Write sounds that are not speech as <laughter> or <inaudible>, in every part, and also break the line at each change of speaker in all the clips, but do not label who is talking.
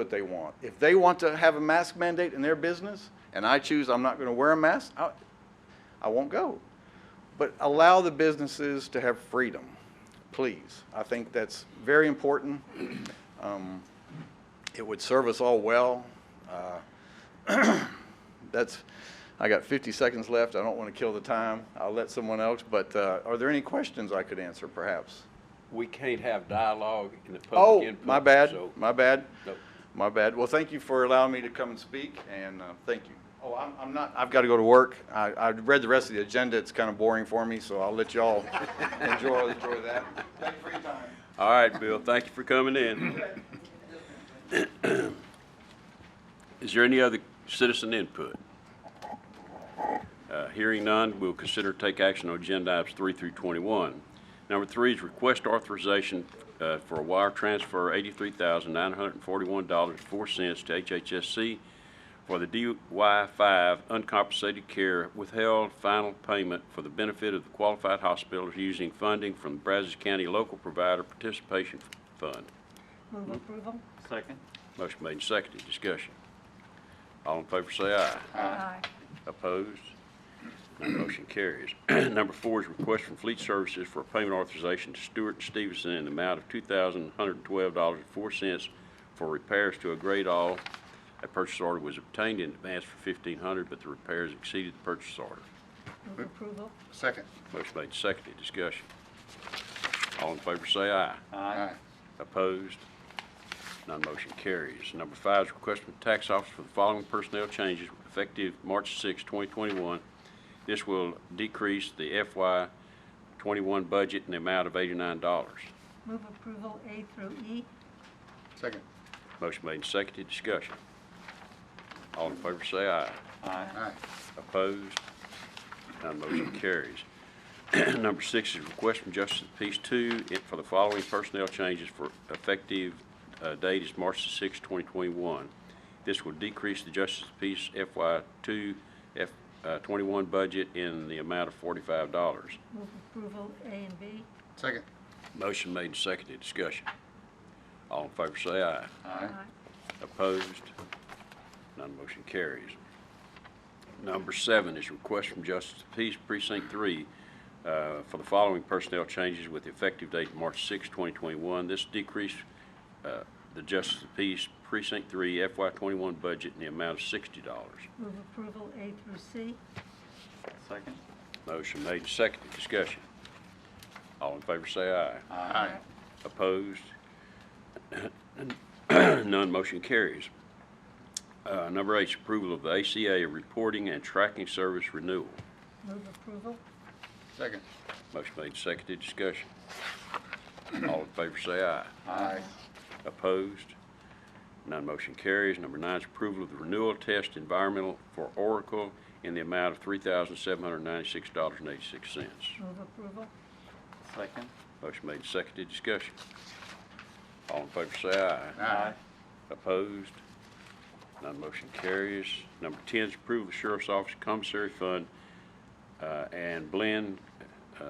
what they want. If they want to have a mask mandate in their business, and I choose I'm not going to wear a mask, I, I won't go. But allow the businesses to have freedom, please. I think that's very important. Um, It would serve us all well. Uh, <clears throat> That's, I got 50 seconds left. I don't want to kill the time. I'll let someone else, but uh, are there any questions I could answer, perhaps?
We can't have dialogue in the public
Oh,
input.
my bad,
so-
my bad.
Nope.
My bad. Well, thank you for allowing me to come and speak, and uh, thank you. Oh, I'm, I'm not, I've got to go to work. I, I read the rest of the agenda. It's kind of boring for me, so I'll let y'all enjoy, enjoy that. Thank you for your time.
All right, Bill, thank you for coming in. Is there any other citizen input? Uh, Hearing none, we'll consider take action on agenda items three through 21. Number three is request authorization uh, for a wire transfer $83,941.04 to HHSC for the DY5 uncompensated care withheld final payment for the benefit of the qualified hospitals using funding from the Brazos County Local Provider Participation Fund.
Move approval?
Second.
Motion made and seconded. Discussion. All in favor say aye.
Aye.
Opposed? None motion carries. <clears throat> Number four is request from Fleet Services for a payment authorization to Stewart and Stevenson in the amount of $2,112.04 for repairs to a grade all. A purchase order was obtained in advance for $1,500, but the repairs exceeded the purchase order.
Move approval?
Second.
Motion made, seconded, discussion. All in favor say aye.
Aye.
Opposed? None motion carries. Number five is request from the tax office for the following personnel changes effective March 6, 2021. This will decrease the FY '21 budget in the amount of $89.
Move approval A through E?
Second.
Motion made and seconded, discussion. All in favor say aye.
Aye.
Aye.
Opposed? None motion carries. <clears throat> Number six is request from Justice of the Peace two it- for the following personnel changes for effective uh, date is March the sixth, twenty twenty-one. This will decrease the Justice of the Peace FY two, F, uh, twenty-one budget in the amount of forty-five dollars.
Move approval A and B?
Second.
Motion made and seconded. Discussion. All in favor say aye.
Aye.
Opposed? None motion carries. Number seven is request from Justice of the Peace Precinct Three uh, for the following personnel changes with effective date March 6, 2021. This decrease uh, the Justice of the Peace Precinct Three FY '21 budget in the amount of $60.
Move approval A through C?
Second.
Motion made, seconded. Discussion. All in favor say aye.
Aye.
Opposed? <clears throat> None motion carries. Uh, Number eight is approval of the ACA reporting and tracking service renewal.
Move approval?
Second.
Motion made, seconded, discussion. All in favor say aye.
Aye.
Opposed? None motion carries. Number nine is approval of the renewal test environmental for Oracle in the amount of $3,796.86.
Move approval?
Second.
Motion made, seconded, discussion. All in favor say aye.
Aye.
Opposed? None motion carries. Number 10 is approve of Sheriff's Office Commissary Fund uh, and Blend uh,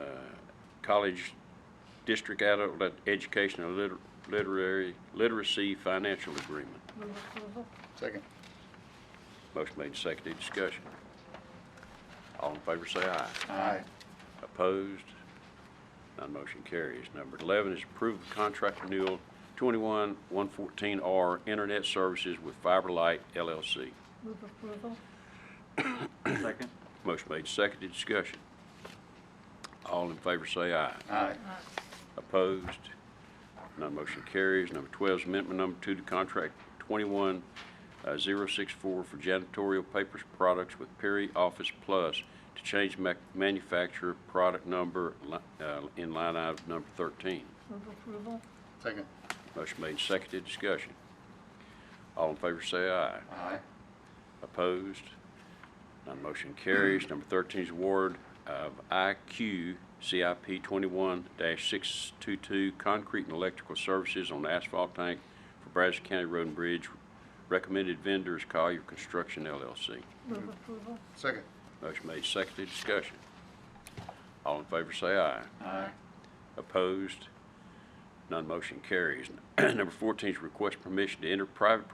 College District Adult Ed- Education and Liter- Literary Literacy Financial Agreement.
Move approval?
Second.
Motion made, seconded, discussion. All in favor say aye.
Aye.
Opposed? None motion carries. Number 11 is approve the contract renewal 21114R Internet Services with FiberLight LLC.
Move approval?
Second.
Motion made, seconded, discussion. All in favor say aye.
Aye.
Opposed? None motion carries. Number 12 is amendment number two to contract uh, 21064 for janitorial papers products with Perry Office Plus to change mac- manufacturer product number li- uh, in line item number 13.
Move approval?
Second.
Motion made, seconded, discussion. All in favor say aye.
Aye.
Opposed? None motion carries. Number 13 is award of IQ CIP 21-622 Concrete and Electrical Services on Asphalt Tank for Brazos County Road and Bridge. Recommended vendors Collier Construction LLC.
Move approval?
Second.
Motion made, seconded, discussion. All in favor say aye.
Aye.
<clears throat> Opposed? None motion carries. Number 14 is request permission to enter private